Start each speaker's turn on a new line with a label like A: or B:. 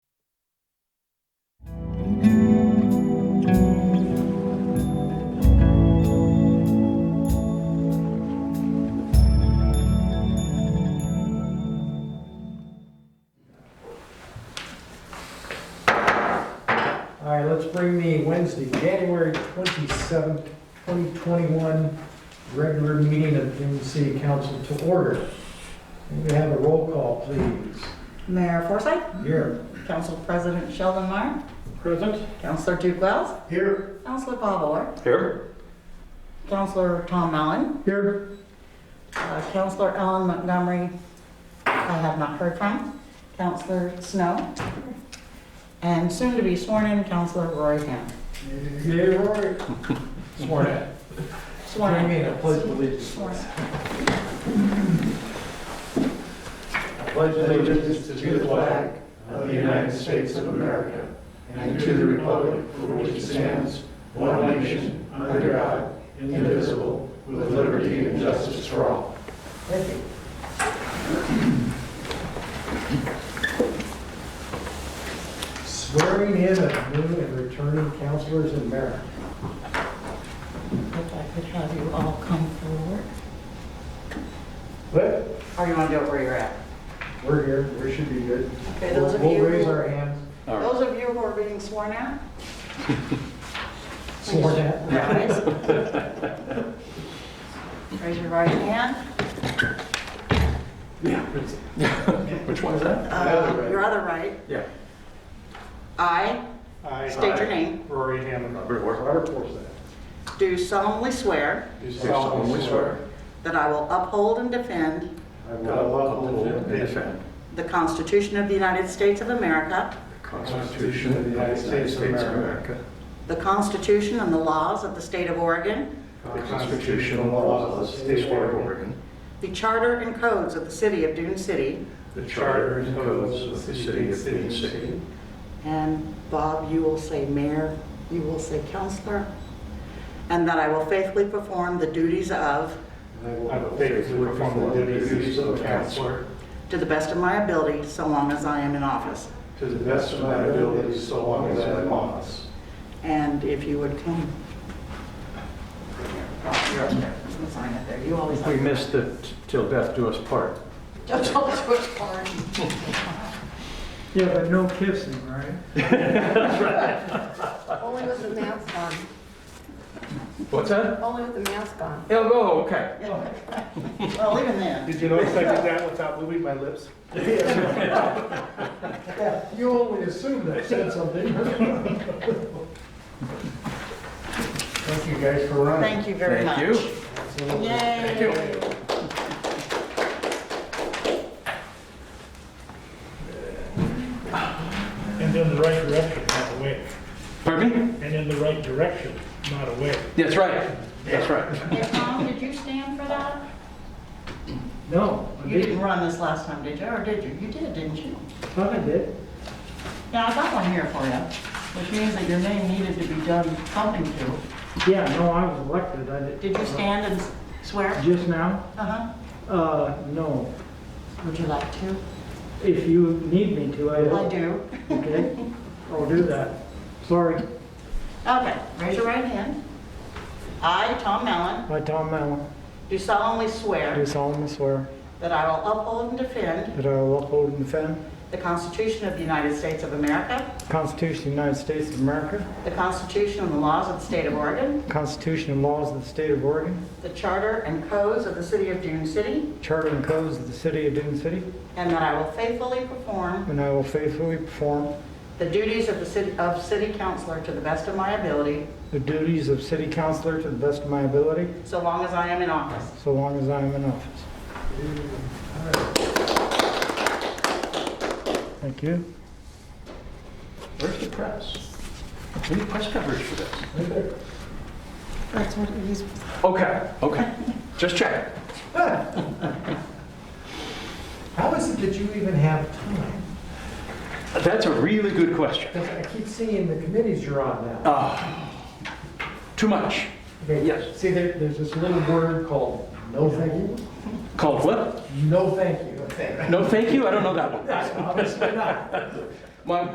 A: All right, let's bring the Wednesday, January twenty-seventh, twenty twenty-one regular meeting of Dune City Council to order. May we have a roll call, please?
B: Mayor Forsyth,
A: Here.
B: Council President Sheldon Meyer,
C: Present.
B: Councilor Duke Wells,
A: Here.
B: Councilor Bob Orr,
C: Here.
B: Councilor Tom Allen,
A: Here.
B: uh, Councilor Ellen Montgomery, I have not heard from, Councilor Snow, and soon to be sworn in, Councilor Roy Hamm.
A: Yeah, Rory. Sworn in.
B: Sworn
A: Join
B: in.
A: me in a pledge of allegiance.
B: Sworn in.
D: pledge allegiance to the flag of the United States of America and to the republic for which it stands, one nation, under God, indivisible, with liberty and justice for all.
A: Thank you. Swearing in of new and returning councilors and mayor.
B: If I could have you all come forward.
A: But
B: Or you want to do it where you're at?
A: we're here, we should be good.
B: Okay, those of
A: We'll-
B: you
A: We'll raise
B: who-
A: our hands.
C: All right.
B: Those of you who are being sworn out,
A: Sworn in.
B: rise. Raise your right hand.
C: Which one is that?
B: Uh, Your other right.
C: Yeah.
B: I
D: I,
B: state your name.
D: Rory Hammond,
C: Robert Ward.
A: Robert Forsyth.
B: Do solemnly swear
D: do
C: Do solemnly swear.
B: that I will uphold and defend
D: I
C: that I
D: will
C: will
D: uphold and defend
C: defend
B: the Constitution of the United States of America,
C: the Constitution of the United States of America.
B: the Constitution and the laws of the State of Oregon,
D: the Constitution and laws of the state of Oregon,
B: the Charter and codes of the City of Dune City,
C: The Charter and codes of the City of Dune City.
B: and Bob, you will say mayor, you will say counselor, and that I will faithfully perform the duties of,
D: I will faithfully perform the duties of councillor
B: to the best of my ability, so long as I am in office.
D: to the best of my ability, so long as I am in office.
B: And if you would come. You're up there. You can Sign it there. You always have.
C: We missed it till death do us part.
B: Don't tell us which part.
E: Yeah, but no kissing, right?
F: Only with the mask on,
C: What's that?
F: only with the mask on.
C: Oh, okay.
B: Well, even then.
D: Did you notice I did that without moving my lips?
A: Yeah, You only assumed I said something. Thank you guys for running.
B: Thank you very much.
C: Thank you.
A: Absolutely.
B: Yay.
G: And in the right direction, not away.
C: Pardon me?
G: And in the right direction, not away.
C: That's right. That's right.
B: Hey, Tom, did you stand for that?
E: No, I
B: You didn't
E: didn't.
B: run this last time, did you? Or did you? You did, didn't you?
E: Thought I did.
B: Yeah, I got one here for you, which means that your name needed to be done something to.
E: Yeah, no, I was elected, I did.
B: Did you stand and swear?
E: Just now?
B: Uh-huh.
E: Uh, no.
B: Would you like to?
E: If you need me to, I
B: I
E: will.
B: do.
E: Okay, I'll do that. Sorry,
B: Okay, raise your right hand. I, Tom Allen,
E: I, Tom Allen,
B: do solemnly
E: do
B: swear
E: solemnly swear
B: that I will uphold and defend
E: that I will uphold and defend
B: the Constitution of the United States of America,
E: the Constitution of the United States of America,
B: the Constitution and the laws of the State of Oregon,
E: the Constitution and laws of the State of Oregon,
B: the Charter and codes of the City of Dune City,
E: Charter and codes of the City of Dune City,
B: and that I will faithfully perform
E: and I will faithfully perform
B: the duties of the city, of city councillor to the best of my ability,
E: the duties of City Councilor to the best of my ability,
B: so long as I am in office.
E: so long as I am in office. Thank you.
C: Where's the press? We need press coverage for this.
F: That's what it is.
C: Okay, okay. Just check.
A: How is it that you even have time?
C: That's a really good question.
A: 'Cause I keep seeing the committees you're on now.
C: Ah, Too much.
A: Okay,
C: yes.
A: See, there, there's this little word called no thank you,
C: Called what?
A: no thank you. é
C: No, thank you. I don't know that one.
A: Obviously not.
C: My,